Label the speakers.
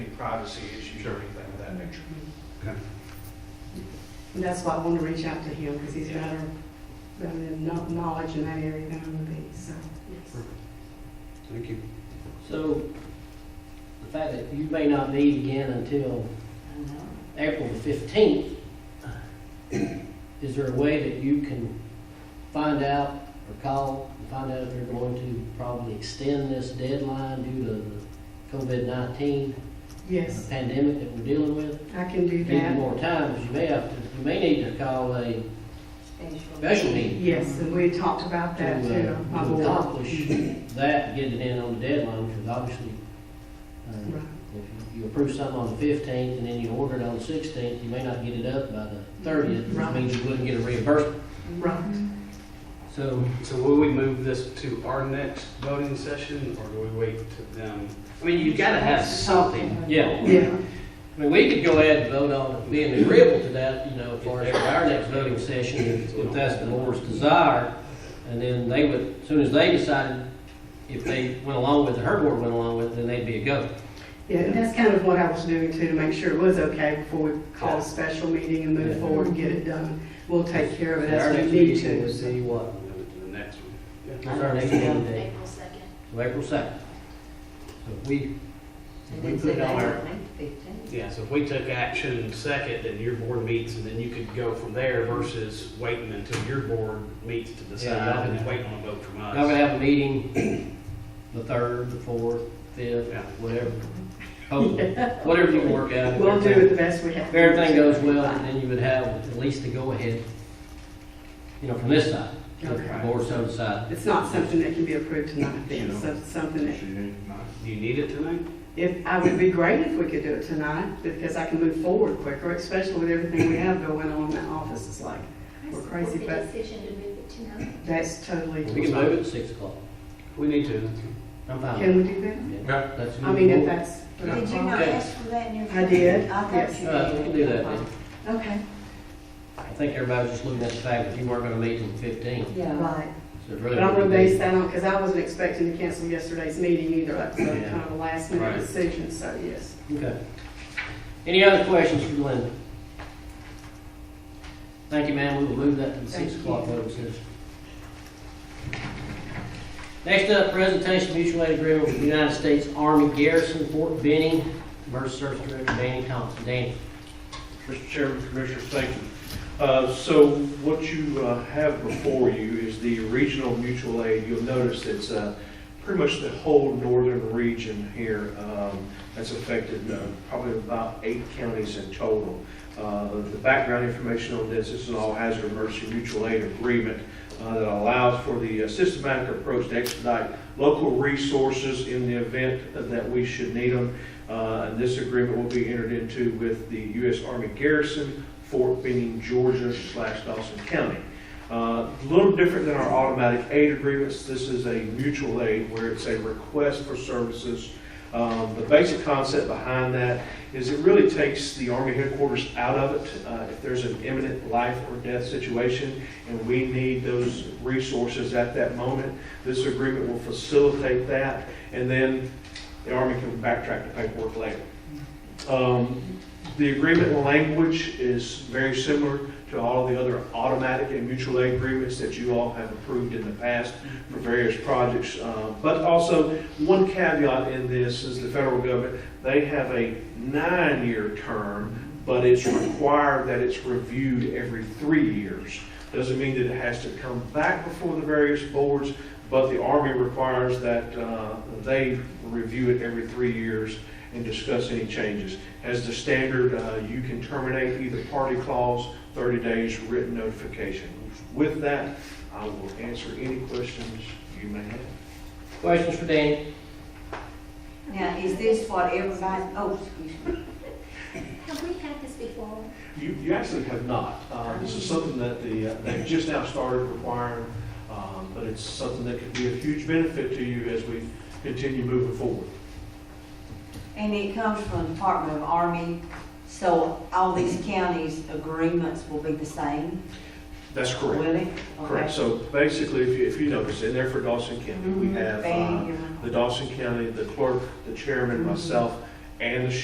Speaker 1: privacy issues or anything of that nature.
Speaker 2: Okay.
Speaker 3: And that's why I want to reach out to him, because he's better, better than kno- knowledge in that area than I would be, so, yes.
Speaker 2: Thank you.
Speaker 4: So the fact that you may not meet again until April the fifteenth, is there a way that you can find out or call and find out if they're going to probably extend this deadline due to the COVID nineteen
Speaker 3: Yes,
Speaker 4: pandemic that we're dealing with?
Speaker 3: I can do
Speaker 4: Need
Speaker 3: that.
Speaker 4: more time, because you may have to, you may need to call a special meeting
Speaker 3: Yes, and we had talked about
Speaker 4: to
Speaker 3: that too, my
Speaker 4: uh, to
Speaker 3: board.
Speaker 4: accomplish that, get it in on the deadline, because obviously, uh,
Speaker 3: Right.
Speaker 4: If you approve something on the fifteenth and then you order it on the sixteenth, you may not get it up by the thirtieth, which
Speaker 3: Right.
Speaker 4: means you wouldn't get a reimbursement.
Speaker 3: Right.
Speaker 4: So,
Speaker 2: So will we move this to our next voting session, or do we wait to them? I mean, you gotta have something.
Speaker 4: yeah,
Speaker 3: Yeah,
Speaker 4: I mean, we could go ahead and vote on it, being agreeable to that, you know, for our next voting session, if if that's the board's desire. And then they would, as soon as they decided, if they went along with it, her board went along with it, then they'd be a go.
Speaker 3: yeah, and that's kind of what I was doing too, to make sure it was okay before we call a special meeting and move
Speaker 4: Yeah.
Speaker 3: forward and get it done. We'll take care of it
Speaker 4: Our
Speaker 3: as we
Speaker 4: next
Speaker 3: need
Speaker 4: meeting would
Speaker 3: to.
Speaker 4: be what?
Speaker 2: Move it to uh, the next one.
Speaker 4: That's our next meeting day.
Speaker 5: April second.
Speaker 4: So April second. So if we, if we put it on our,
Speaker 2: Yeah, so if we took action second, then your board meets, and then you could go from there versus waiting until your board meets to
Speaker 4: Yeah,
Speaker 2: decide, and waiting on a vote from
Speaker 4: Y'all gonna
Speaker 2: us.
Speaker 4: have a meeting the third, the fourth, fifth,
Speaker 2: Yeah.
Speaker 4: whatever. Hope- Whatever you can work out.
Speaker 3: We'll do it the best we have.
Speaker 4: If
Speaker 3: to.
Speaker 4: everything goes well, then you would have at least the go-ahead, you know, from this side, if the
Speaker 3: Okay.
Speaker 4: board so decides.
Speaker 3: It's not something that can be approved tonight then, so it's something that,
Speaker 2: Do you need it tonight?
Speaker 3: if, I would be great if we could do it tonight, because I can move forward quicker, especially with everything we have going on in the office, it's like, We're crazy, but-
Speaker 5: Decision to move it to nine.
Speaker 3: that's totally,
Speaker 4: We can move it to six o'clock.
Speaker 2: We need to.
Speaker 4: I'm fine.
Speaker 3: can we do that?
Speaker 4: with it.
Speaker 1: Yeah.
Speaker 4: That's
Speaker 3: I mean, if
Speaker 4: good.
Speaker 3: that's.
Speaker 5: Did you not
Speaker 4: Okay.
Speaker 5: ask for that in your?
Speaker 3: I did,
Speaker 5: I thought
Speaker 3: yes.
Speaker 5: you
Speaker 4: Uh, we can do that then.
Speaker 3: Okay,
Speaker 4: I think everybody's just looking at the fact that you weren't gonna meet until fifteen,
Speaker 6: Yeah.
Speaker 3: right.
Speaker 4: so it really.
Speaker 3: But I'm gonna
Speaker 4: wouldn't be-
Speaker 3: base that on, because I wasn't expecting to cancel yesterday's meeting either, that was
Speaker 4: Yeah.
Speaker 3: kind of a last
Speaker 2: Right.
Speaker 3: minute decision, so yes.
Speaker 4: Okay. Any other questions for Glenda? Thank you, ma'am. We will move that to the six
Speaker 3: Thank
Speaker 4: o'clock voting session. Next up, presentation of mutual aid agreement with the United States Army Garrison Fort Benning versus Service Director Danny Thompson. Danny,
Speaker 1: Mr. Chairman, Commissioners, thank you. Uh, So what you uh, have before you is the regional mutual aid. You'll notice it's uh, pretty much the whole northern region here um, that's affected, uh, probably about eight counties in total. Uh, The background information on this, this is an all-hazard emergency mutual aid agreement uh, that allows for the uh, systematic approach to expedite local resources in the event that we should need them. Uh, And this agreement will be entered into with the U.S. Army Garrison, Fort Benning, Georgia slash Dawson County. Uh, A little different than our automatic aid agreements, this is a mutual aid where it's a request for services. Um, The basic concept behind that is it really takes the Army headquarters out of it. Uh, If there's an imminent life or death situation and we need those resources at that moment, this agreement will facilitate that. And then the Army can backtrack the paperwork later. Um, The agreement language is very similar to all of the other automatic and mutual aid agreements that you all have approved in the past for various projects. Uh, But also, one caveat in this is the federal government, they have a nine-year term, but it's required that it's reviewed every three years. Doesn't mean that it has to come back before the various boards, but the Army requires that uh, they review it every three years and discuss any changes. As the standard, uh, you can terminate either party clause, 30 days written notification. With that, I will answer any questions you may have.
Speaker 4: questions for Danny?
Speaker 6: Now, is this what everybody, oh, excuse me.
Speaker 5: Have we had this before?
Speaker 1: You, you actually have not. Uh, This is something that the, uh, they've just now started requiring, um, but it's something that could be a huge benefit to you as we continue moving forward.
Speaker 6: And it comes from the Department of Army, so all these counties' agreements will be the same,
Speaker 1: That's
Speaker 6: will
Speaker 1: correct.
Speaker 6: it?
Speaker 1: Correct. So basically, if you, if you notice, in there for Dawson
Speaker 6: Mm-hmm.
Speaker 1: uh, County, we have uh, the Dawson County, the clerk, the chairman, myself, and the